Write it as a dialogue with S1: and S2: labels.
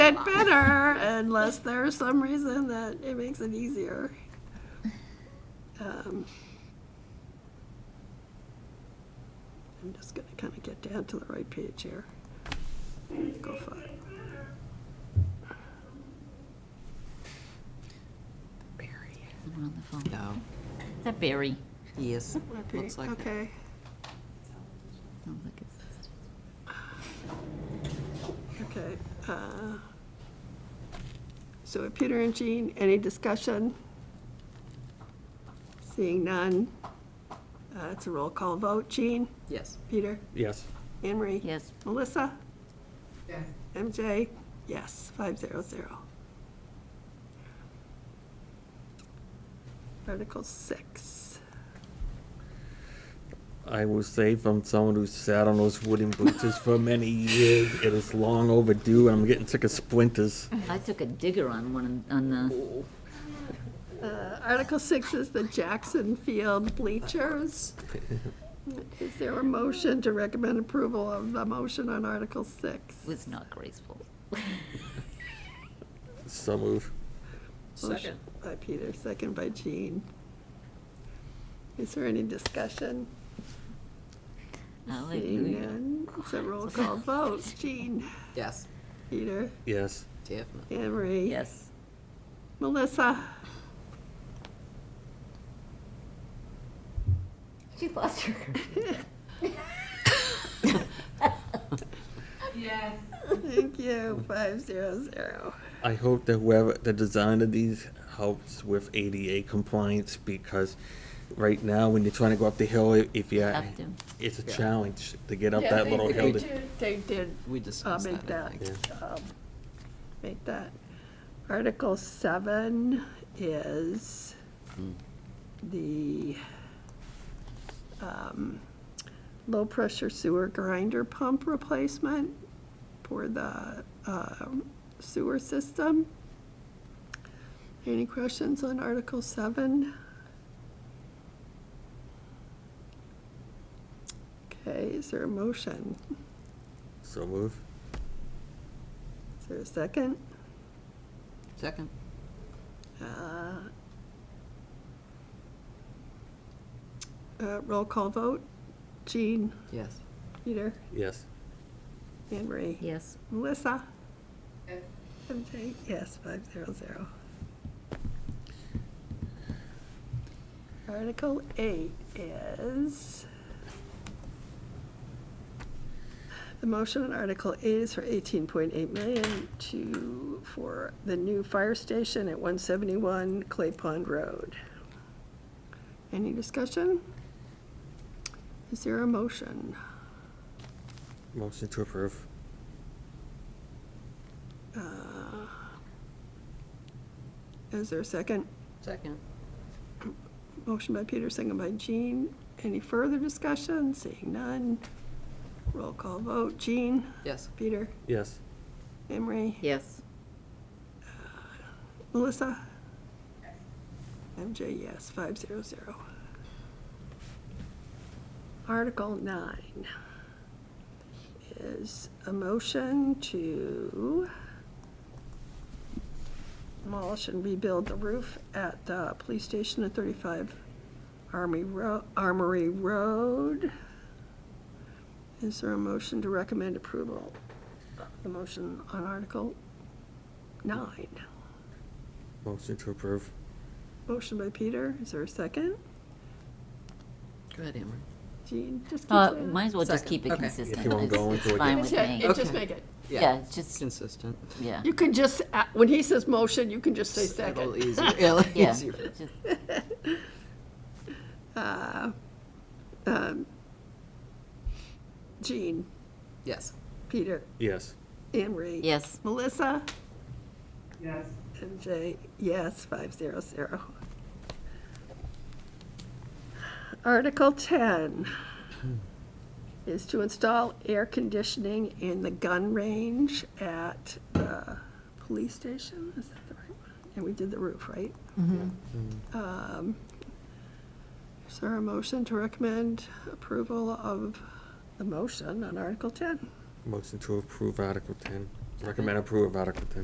S1: better unless there's some reason that it makes it easier. Um, I'm just gonna kind of get down to the right page here. Go five.
S2: I'm on the phone.
S3: No,
S2: Is that Barry?
S3: yes, looks like that.
S1: Okay,
S2: Sounds like it's-
S1: okay. uh, So Peter and Jean, any discussion? Seeing none. Uh, It's a roll call vote. Jean?
S3: Yes.
S1: Peter?
S4: Yes.
S1: Anne Marie?
S2: Yes,
S1: Melissa? Yes. MJ? Yes, five zero zero. Article six.
S4: I will say from someone who sat on those wooden bleachers for many years, it is long overdue, and I'm getting sick of splinters.
S2: I took a digger on one, on the,
S1: Uh, Article six is the Jackson Field bleachers. Is there a motion to recommend approval of the motion on Article six?
S2: was not graceful.
S4: So move.
S1: Second. By Peter, second by Jean. Is there any discussion? Seeing
S2: Hallelujah.
S1: none, it's a roll call vote. Jean?
S3: Yes.
S1: Peter?
S4: Yes.
S3: Definitely.
S1: Anne Marie?
S2: Yes,
S1: Melissa?
S2: she lost her.
S1: Thank you, five zero zero.
S4: I hope that whoever, the design of these helps with ADA compliance, because right now, when you're trying to go up the hill, i- if you,
S2: Up to-
S4: it's a
S3: Yeah.
S4: challenge to get up that little hill. to-
S1: They did
S3: We
S1: uh,
S3: discussed
S1: make
S3: that, I
S1: that,
S3: think.
S1: um, make that. Article seven is the um, low-pressure sewer grinder pump replacement for the um, sewer system. Any questions on Article seven? Okay, is there a motion?
S4: So move.
S1: Is there a second?
S3: Second.
S1: Uh, uh, Roll call vote. Jean,
S3: Yes.
S1: Peter,
S4: Yes.
S1: Anne Marie.
S2: Yes,
S1: Melissa? MJ, yes, five zero zero. Article eight is, the motion on Article eight is for eighteen point eight million to, for the new fire station at one seventy-one Clay Pond Road. Any discussion? Is there a motion?
S4: Motion to approve.
S1: Uh, Is there a second?
S3: Second.
S1: Motion by Peter, second by Jean. Any further discussion? Seeing none. Roll call vote. Jean?
S3: Yes.
S1: Peter?
S4: Yes.
S1: Emery?
S2: yes,
S1: Melissa? MJ, yes, five zero zero. Article nine is a motion to demolish and rebuild the roof at the police station at thirty-five Army Ro- Armory Road. Is there a motion to recommend approval of the motion on Article nine?
S4: Motion to approve.
S1: Motion by Peter, is there a second?
S3: Go ahead, Emery.
S1: Jean, just keep
S2: uh,
S1: saying.
S2: might as well just
S3: Second.
S2: keep it
S3: Okay.
S2: consistent.
S4: If you wanna
S2: It's-
S4: go into
S2: it's
S4: it,
S2: Fine
S1: It's
S2: with
S1: it,
S2: me,
S1: it just
S3: Okay.
S1: make it.
S2: yeah, it's just,
S3: Consistent.
S2: yeah,
S1: You can just, a- when he says motion, you can just say
S3: It's A little
S1: second.
S3: easier. Yeah, a little
S2: yeah,
S3: easier.
S2: just-
S1: Uh, um, Jean,
S3: Yes.
S1: Peter,
S4: Yes.
S1: Emery.
S2: yes,
S1: Melissa? Yes. MJ, yes, five zero zero. Article ten is to install air conditioning in the gun range at the police station, is that the right one? And we did the roof, right? Um, Is there a motion to recommend approval of the motion on Article ten?
S4: Motion to approve Article 10. Recommend approval of Article 10.